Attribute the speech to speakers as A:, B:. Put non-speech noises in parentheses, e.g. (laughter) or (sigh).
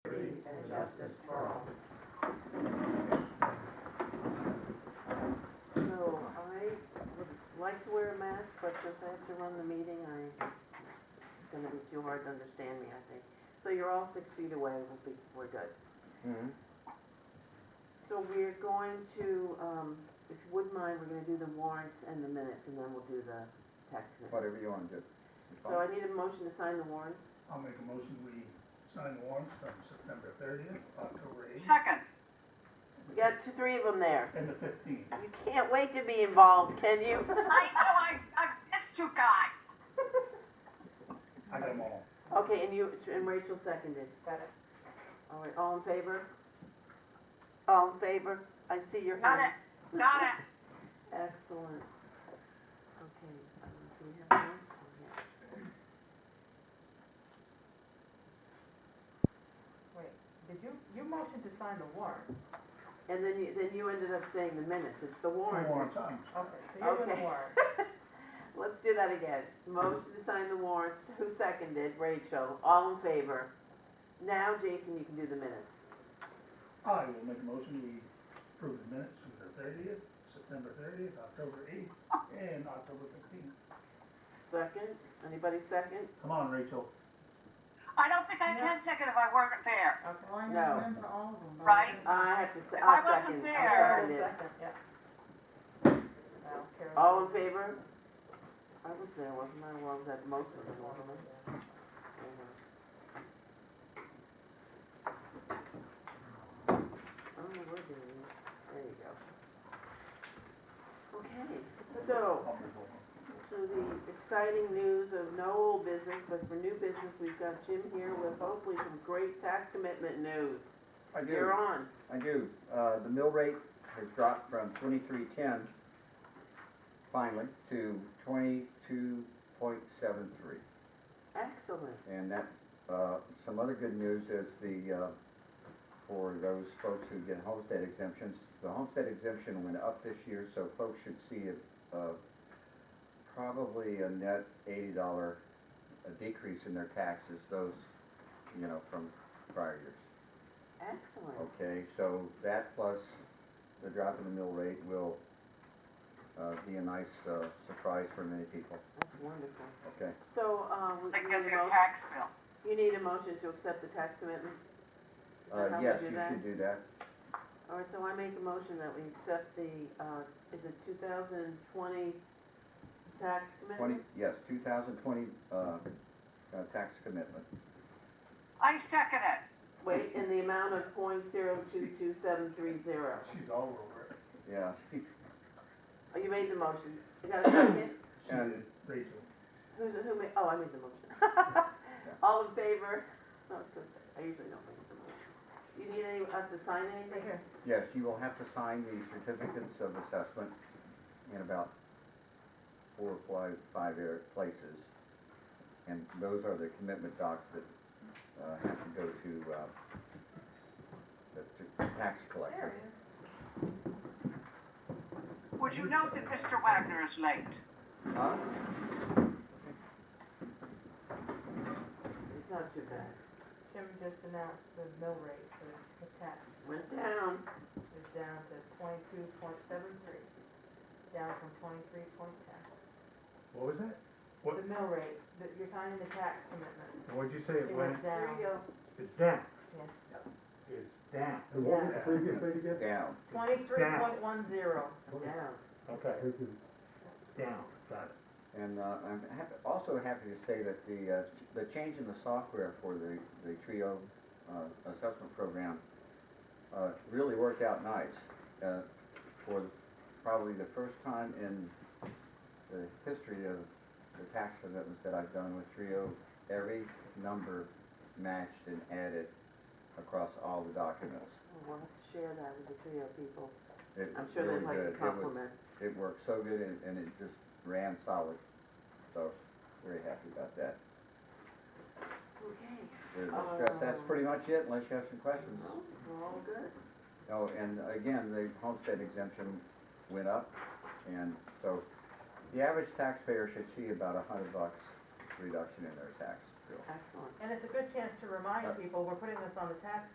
A: wear a mask, but since I have to run the meeting, I, it's gonna be too hard to understand me, I think. So you're all six feet away, we'll be, we're good.
B: Mhm.
A: So we're going to, um, if you wouldn't mind, we're gonna do the warrants and the minutes, and then we'll do the tax commitment.
B: Whatever you want to do. It's
A: So I
B: fine.
A: need a motion to sign the warrants.
C: I'll make a motion, we sign the warrants from September thirtieth, October eighth,
D: Second,
A: You got two, three of them there.
C: and the fifteenth.
A: You can't wait to be involved, can you? (laughs)
D: I know I, I missed you guys.
C: I got them all.
A: Okay, and you, and Rachel seconded. Got it. All right, all in favor? All in favor? I see your
D: Got
A: hand.
D: it, got it.
A: Excellent. Okay, um, do we have minutes? Oh, yeah.
E: Wait, did you, you motioned to sign the warrant,
A: And then you, then you ended up saying the minutes, it's the warrants.
C: Warrants, I'm
E: okay, so you're doing
A: Okay.
E: the
A: (laughs)
E: warrant.
A: Let's do that again. Motion to sign the warrants, who seconded? Rachel, all in favor. Now, Jason, you can do the minutes.
C: I will make a motion, we approve the minutes from the thirtieth, September thirtieth, October eighth, and October fifteenth.
A: Second, anybody second?
C: Come on, Rachel.
D: I don't think I can second if I weren't there.
E: Well, I
A: No.
E: remember all of them. but
D: Right.
E: didn't-
A: I have to say,
D: If I
A: I'll
D: wasn't
A: second,
D: there-
A: I'll
E: Oh,
A: second it.
E: second, yeah. Now, Carol.
A: All in favor? I was there, wasn't I? Well, I was at most of them, wasn't I? I don't know where they are. Oh, There you go. Okay, so,
C: I'll move over.
A: to the exciting news of no old business, but for new business, we've got Jim here with hopefully some great tax commitment news.
B: I do,
A: You're on.
B: I do. Uh, the mill rate has dropped from twenty-three ten finally to twenty-two point seven three.
A: Excellent.
B: And that, uh, some other good news is the, uh, for those folks who get homestead exemptions, the homestead exemption went up this year, so folks should see a, a, probably a net eighty dollar decrease in their taxes, those, you know, from prior years.
A: Excellent.
B: Okay, so that plus the drop in the mill rate will, uh, be a nice, uh, surprise for many people,
A: That's wonderful.
B: okay?
A: So, uh, we
D: They
A: we
D: get
A: need a
D: their
A: motion.
D: tax bill.
A: You need a motion to accept the tax commitment? Is that
B: Uh,
A: how we
B: yes,
A: do
B: you
A: that?
B: should do that.
A: All right, so I make a motion that we accept the, uh, is it 2020 tax
B: Twenty,
A: commitment?
B: yes, two thousand twenty, uh, uh, tax commitment.
D: I second it.
A: Wait, in the amount of point zero two two seven three zero.
C: She's all over it.
B: Yeah, (laughs)
A: Oh, you made the motion. You got a second?
B: (coughs)
C: She
B: And-
C: did, Rachel.
A: Who's, who made, oh, I made the motion. (laughs) All in favor? Oh, it's good. I usually don't make the motion. You need any, us to sign
E: Right
A: anything?
E: here.
B: yes, you will have to sign the certificates of assessment in about four or five, five air- places. And those are the commitment docs that, uh, have to go to, uh, the, to tax collector.
D: Would you note that Mr. Wagner is late?
B: Huh?
A: It's not too bad.
E: Jim just announced the mill rate for the tax
A: Went down.
E: is down to twenty-two point seven three, down from twenty-three point ten.
F: What was that? What-
E: The mill rate, that you're signing the tax commitment,
F: What'd you say
E: it
F: it went? uh,
E: went
A: There
E: down,
A: you go.
F: It's down.
E: yes.
F: It's down.
G: And what was the previous rate again?
B: Down.
E: Twenty-three point one zero.
A: Down.
F: Okay,
G: Thank you.
F: down, got it.
B: And uh, I'm hap- also happy to say that the, uh, the change in the software for the, the TRIO uh, assessment program uh, really worked out nice. Uh, For probably the first time in the history of the tax commitments that I've done with TRIO, every number matched and added across all the documents.
A: We'll have to share that with the trio people.
B: It
A: I'm
B: was
A: sure
B: really
A: they'd like
B: good.
A: to
B: It was-
A: compliment.
B: It worked so good and, and it just ran solid. So, very happy about that.
A: Okay.
B: There's no stress. That's pretty much it, unless you have some questions.
A: No, We're all good.
B: Oh, and again, the homestead exemption went up, and so the average taxpayer should see about a hundred bucks reduction in their tax bill.
A: Excellent.
E: And it's a good chance to remind
B: Uh,
E: people, we're putting this on the tax